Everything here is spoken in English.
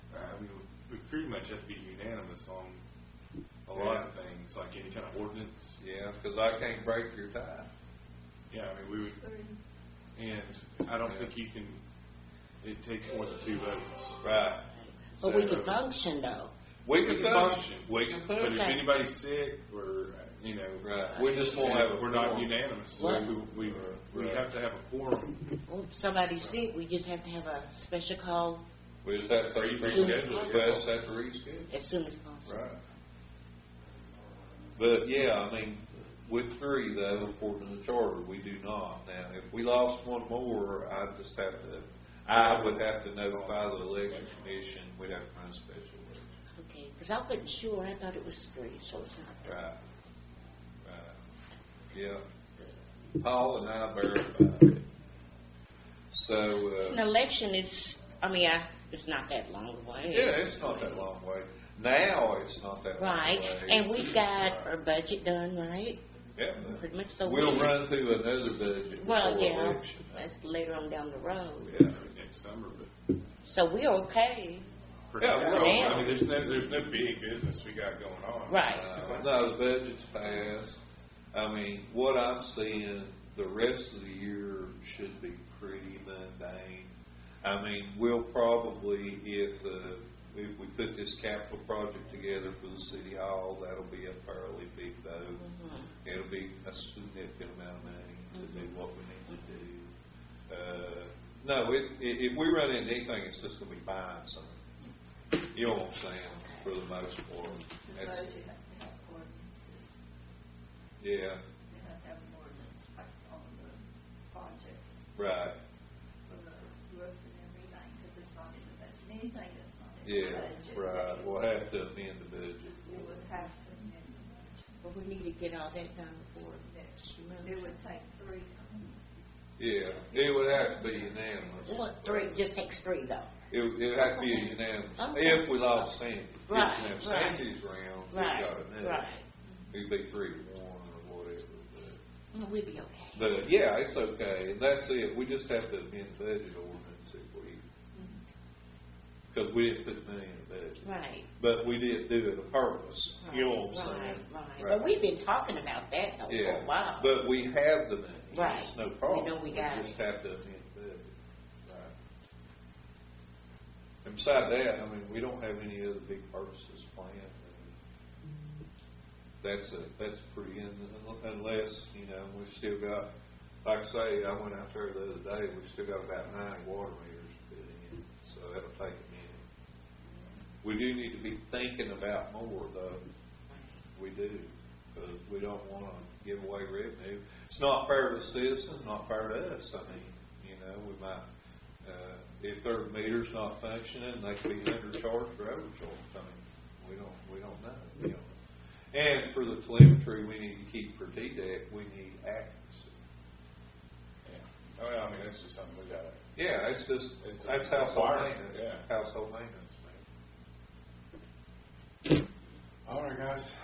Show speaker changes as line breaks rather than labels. Uh, pretty much have to be unanimous on a lot of things, like any kind of ordinance.
Yeah, because I can't break your tie.
Yeah, I mean, we would, and I don't think you can, it takes more than two votes.
Right.
But we could function though.
We
We
can
can
function.
function.
We
But
can
if
function.
Okay.
anybody's sick, or, you know.
Right. We just won't have a.
We're not
quorum.
unanimous, so
What?
we, we, we have to have a quorum.
Well, if somebody's sick, we just have to have a special call
We just have to
Or you
reschedule.
reschedule it.
Request have to reschedule.
as soon as possible.
Right. But yeah, I mean, with three though, according to the charter, we do not. Now, if we lost one more, I'd just have to, I would have to notify the election commission, we'd have to run a special election.
Okay, because I wasn't sure. I thought it was three, so it's not.
Right. Right. Yeah. Paul and I verified it. So, uh.
An election is, I mean, I, it's not that long away.
Yeah, it's not that long way. Now it's not that long
Right,
way.
and we've got our budget done, right?
Yeah.
Pretty much so.
We'll
we-
run through another budget
Well,
before
yeah,
election.
that's later on down the road.
Yeah.
next summer, but
So we're okay,
for
Yeah,
now,
we're
okay.
I mean, there's no, there's no big business we got going on.
right?
Uh, No, the budget's passed. I mean, what I'm seeing, the rest of the year should be pretty mundane. I mean, we'll probably, if, uh, if we put this capital project together for the city hall, that'll be a fairly big vote. It'll be a significant amount of money to do what we need to do. Uh, no, it, i if we run into anything, it's just gonna be buying something. You know what I'm saying, for the most part. That's-
Besides, you have to have ordinances,
yeah,
you have to have an ordinance like on the project
right.
for the roof and everything, because it's not in the budget, anything that's not in
Yeah,
the budget.
right. We'll have to amend the budget.
You would have to amend the budget.
But we need to get all that done before next
It
month.
would take three,
Yeah, it would have to be unanimous.
Well, three, just takes three though.
It, it would have to be unanimous.
Okay.
If we lost Sandy.
Right,
If we have
right.
Sandy's round, we
Right,
got another.
right.
It'd be three to one or whatever. but-
Well, We'd be okay.
But, yeah, it's okay. And that's it. We just have to amend the budget ordinance if we,
Mm-hmm.
because we didn't put money in the budget.
Right.
But we did do it a purpose. You know what I'm
Right,
saying?
right.
Right.
But we've been talking about that though for
Yeah,
a while.
but we have the money.
Oh, Right.
It's no problem.
We know we got
just have to amend the budget. And beside that, I mean, we don't have any other big purchases planned. That's a, that's pretty, in unless, you know, we've still got, like I say, I went out there the other day, we've still got about nine water meters to fit in, so that'll take a minute. We do need to be thinking about more though. We do, because we don't want to give away revenue. It's not fair to the citizen, not fair to us. I mean, you know, we might, uh, if their meter's not functioning, they could be undercharged or overcharged. I mean, we don't, we don't know, you know. And for the telemetry we need to keep for TDEC, we need accuracy.
Yeah. Oh, yeah, I mean, that's just something we gotta,
Yeah, it's just,
It's a
that's household
requirement,
maintenance,
yeah.
household maintenance, man.
all right, guys.